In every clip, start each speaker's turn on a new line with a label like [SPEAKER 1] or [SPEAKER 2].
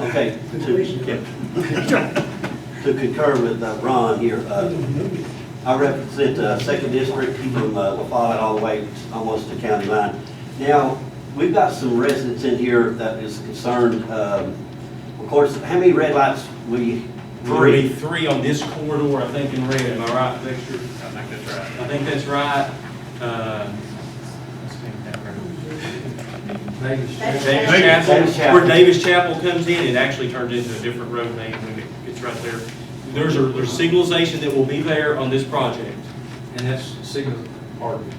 [SPEAKER 1] Okay, to, yeah. To concur with uh, Ron here, uh, I represent the second district, from uh, La Follette all the way almost to county line. Now, we've got some residents in here that is concerned, um, of course, how many red lights we?
[SPEAKER 2] Three, three on this corridor, I think in red, am I right, Victor?
[SPEAKER 3] I think that's right.
[SPEAKER 2] I think that's right. Uh, let's take that road.
[SPEAKER 4] That's-
[SPEAKER 2] Davis
[SPEAKER 1] Davis
[SPEAKER 2] Chapel,
[SPEAKER 1] Chapel.
[SPEAKER 2] where Davis Chapel comes in, it actually turns into a different road name when it gets right there. There's a, there's signalization that will be there on this project.
[SPEAKER 5] And that's signal, pardon,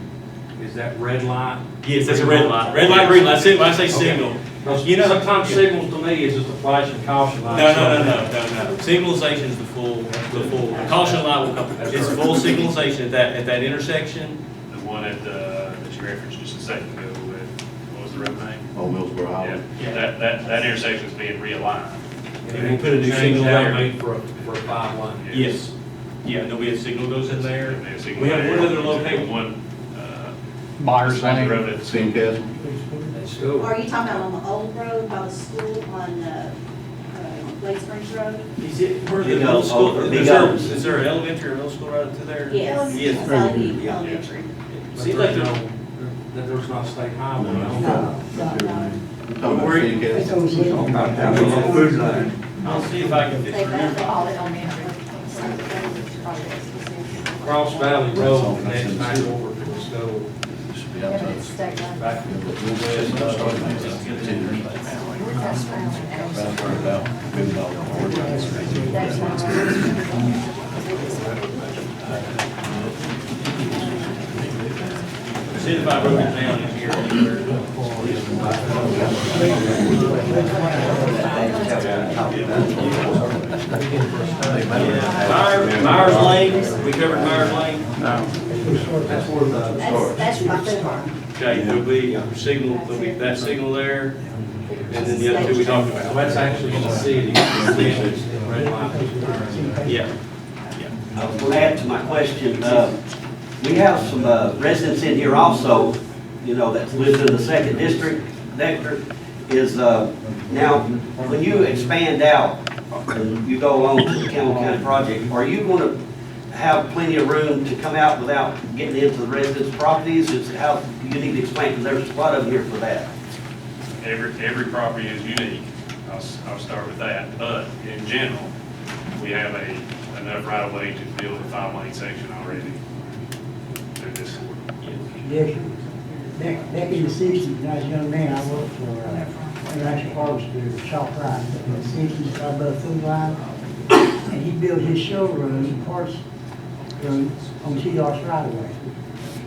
[SPEAKER 5] is that red light?
[SPEAKER 2] Yes, that's a red light, red light, green light, that's it, when I say signal.
[SPEAKER 5] Because
[SPEAKER 2] You know-
[SPEAKER 5] sometimes signals to me is just a flashing caution
[SPEAKER 2] No,
[SPEAKER 5] light.
[SPEAKER 2] no, no, no, no, no. Signalization is the full, the full, the caution light will come, it's full signalization at that, at that intersection.
[SPEAKER 3] The one at, uh, that you referenced just a second ago, with- what was the road name?
[SPEAKER 6] on Oh, Millsboro Highway.
[SPEAKER 3] Yeah, that, that, that intersection's being realigned.
[SPEAKER 5] And we put a new signal there made for, a- for a five line.
[SPEAKER 2] Yes. Yeah, there'll be a signal goes in there.
[SPEAKER 3] There'll be a signal
[SPEAKER 2] We have
[SPEAKER 3] there.
[SPEAKER 2] one other location.
[SPEAKER 3] One, uh,
[SPEAKER 7] Myers
[SPEAKER 3] beside the
[SPEAKER 7] Lane.
[SPEAKER 3] road that's,
[SPEAKER 6] Same Castle?
[SPEAKER 5] That's
[SPEAKER 4] Or
[SPEAKER 5] cool.
[SPEAKER 4] are you talking about on the old road by the school on, uh, uh, Lake Springs Road?
[SPEAKER 2] Is it, where the
[SPEAKER 1] Big
[SPEAKER 2] middle
[SPEAKER 1] old-
[SPEAKER 2] school,
[SPEAKER 1] oh,
[SPEAKER 2] is
[SPEAKER 1] big
[SPEAKER 2] there,
[SPEAKER 1] old.
[SPEAKER 2] is there an elementary or middle school right up to there?
[SPEAKER 4] Yes.
[SPEAKER 2] Yes.
[SPEAKER 4] Sally Elementary.
[SPEAKER 5] But
[SPEAKER 2] Seems like
[SPEAKER 5] there's
[SPEAKER 2] the,
[SPEAKER 5] no- That there's not a state highway. I don't know.
[SPEAKER 4] No, no, no.
[SPEAKER 6] We're talking about Same Castle.
[SPEAKER 2] I'll see if I can
[SPEAKER 4] They
[SPEAKER 2] fit
[SPEAKER 4] found
[SPEAKER 2] through.
[SPEAKER 4] the all elementary.
[SPEAKER 5] Cross Valley Road connects back over to the school.
[SPEAKER 6] It should be
[SPEAKER 8] Yeah, but
[SPEAKER 6] outside.
[SPEAKER 8] it's state line.
[SPEAKER 5] Back
[SPEAKER 6] Yeah, but we'll just start now. Continue.
[SPEAKER 8] We're just around the
[SPEAKER 6] Round
[SPEAKER 8] house.
[SPEAKER 6] turn about, move it all forward.
[SPEAKER 8] That's not right.
[SPEAKER 2] See if I wrote it down in here. Myers, Myers Lane, we covered Myers Lane.
[SPEAKER 5] That's where the.
[SPEAKER 4] That's, that's my food farm.
[SPEAKER 2] Okay, there'll be a signal, there'll be that signal there, and then the other two we talked
[SPEAKER 5] So
[SPEAKER 2] about.
[SPEAKER 5] that's actually in the city. The city is the red light.
[SPEAKER 2] Yeah.
[SPEAKER 1] I was going to add to my question, uh, we have some uh, residents in here also, you know, that lives in the second district, Nectar, is, uh, now, when you expand out and you go along to the Campbell County project, are you going to have plenty of room to come out without getting into the residents' properties? Is how, you need to explain, because there's a lot of them here for that.
[SPEAKER 3] every, every property is unique. I'll, s- I'll start with that, but in general, we have a, enough right of way to build a five lane section already through this corridor.
[SPEAKER 9] Yes, sir. Back, back in the sixties, when I was a young man, I worked for, uh, International Harvester, Shop Right, in the sixties, I bought a food line, and he built his showroom, parts room, on two yards right away.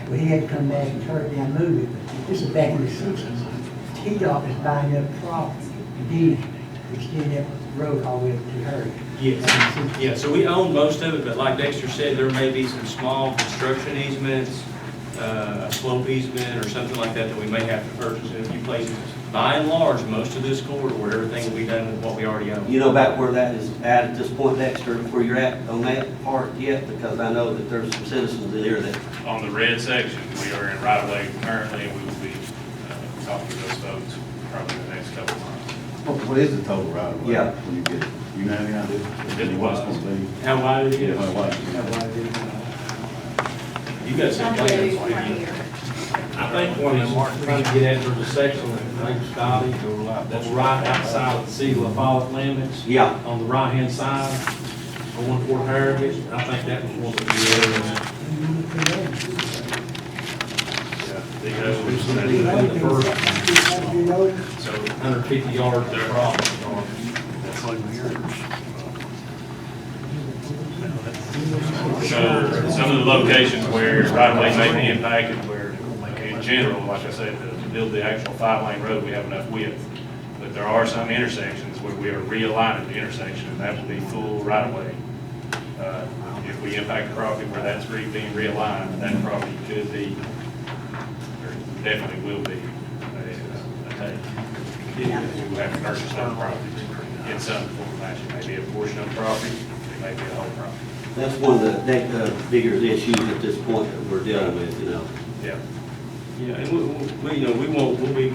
[SPEAKER 9] Well, he had to come back and turn it down, move it, this is back in the sixties. T-Dog is buying up property, deed, extending that road all the way up to her.
[SPEAKER 2] Yes, yeah, so we own most of it, but like Dexter said, there may be some small construction easements, uh, a slope easement or something like that that we may have to purchase in a few places. By and large, most of this corridor, everything will be done with what we already own.
[SPEAKER 1] You know about where that is at at this point, Dexter, where you're at on that part yet? Because I know that there's some citizens in here that
[SPEAKER 3] On the red section, we are in right of way currently, and we will be, uh, talking to those folks probably in the next couple of months.
[SPEAKER 6] What what is the total right of way?
[SPEAKER 1] Yeah.
[SPEAKER 6] When you get, you know any idea?
[SPEAKER 3] Fifty
[SPEAKER 6] What's
[SPEAKER 3] miles.
[SPEAKER 6] gonna be?
[SPEAKER 2] How wide is
[SPEAKER 6] Yeah,
[SPEAKER 2] it?
[SPEAKER 6] how wide?
[SPEAKER 2] You got some plans.
[SPEAKER 8] Right here.
[SPEAKER 5] I think one of them are trying to get after the section that Lake Scotty, that's right outside of the city of La Follette limits,
[SPEAKER 1] Yeah,
[SPEAKER 5] on the right-hand side, going toward Heritage, and I think that was one of the
[SPEAKER 3] They go,
[SPEAKER 5] areas, in the first
[SPEAKER 3] so
[SPEAKER 5] hundred fifty yards of property or
[SPEAKER 3] So some of the locations where right-of-way may be impacted, where in general, like I said, to build the actual five-lane road, we have enough width. But there are some intersections where we are realigning the intersection, and that will be full right-of-way. Uh, If we impact a property where that's re- being realigned, that property could be, or definitely will be, a- a take. We have to purchase some properties in some form or fashion, maybe a portion of the property, it may be a whole property.
[SPEAKER 1] That's one of the, that, uh, bigger issues at this point that we're dealing with, you know.
[SPEAKER 3] Yeah.
[SPEAKER 2] Yeah, and we- we, we, you know, we won't, we'll be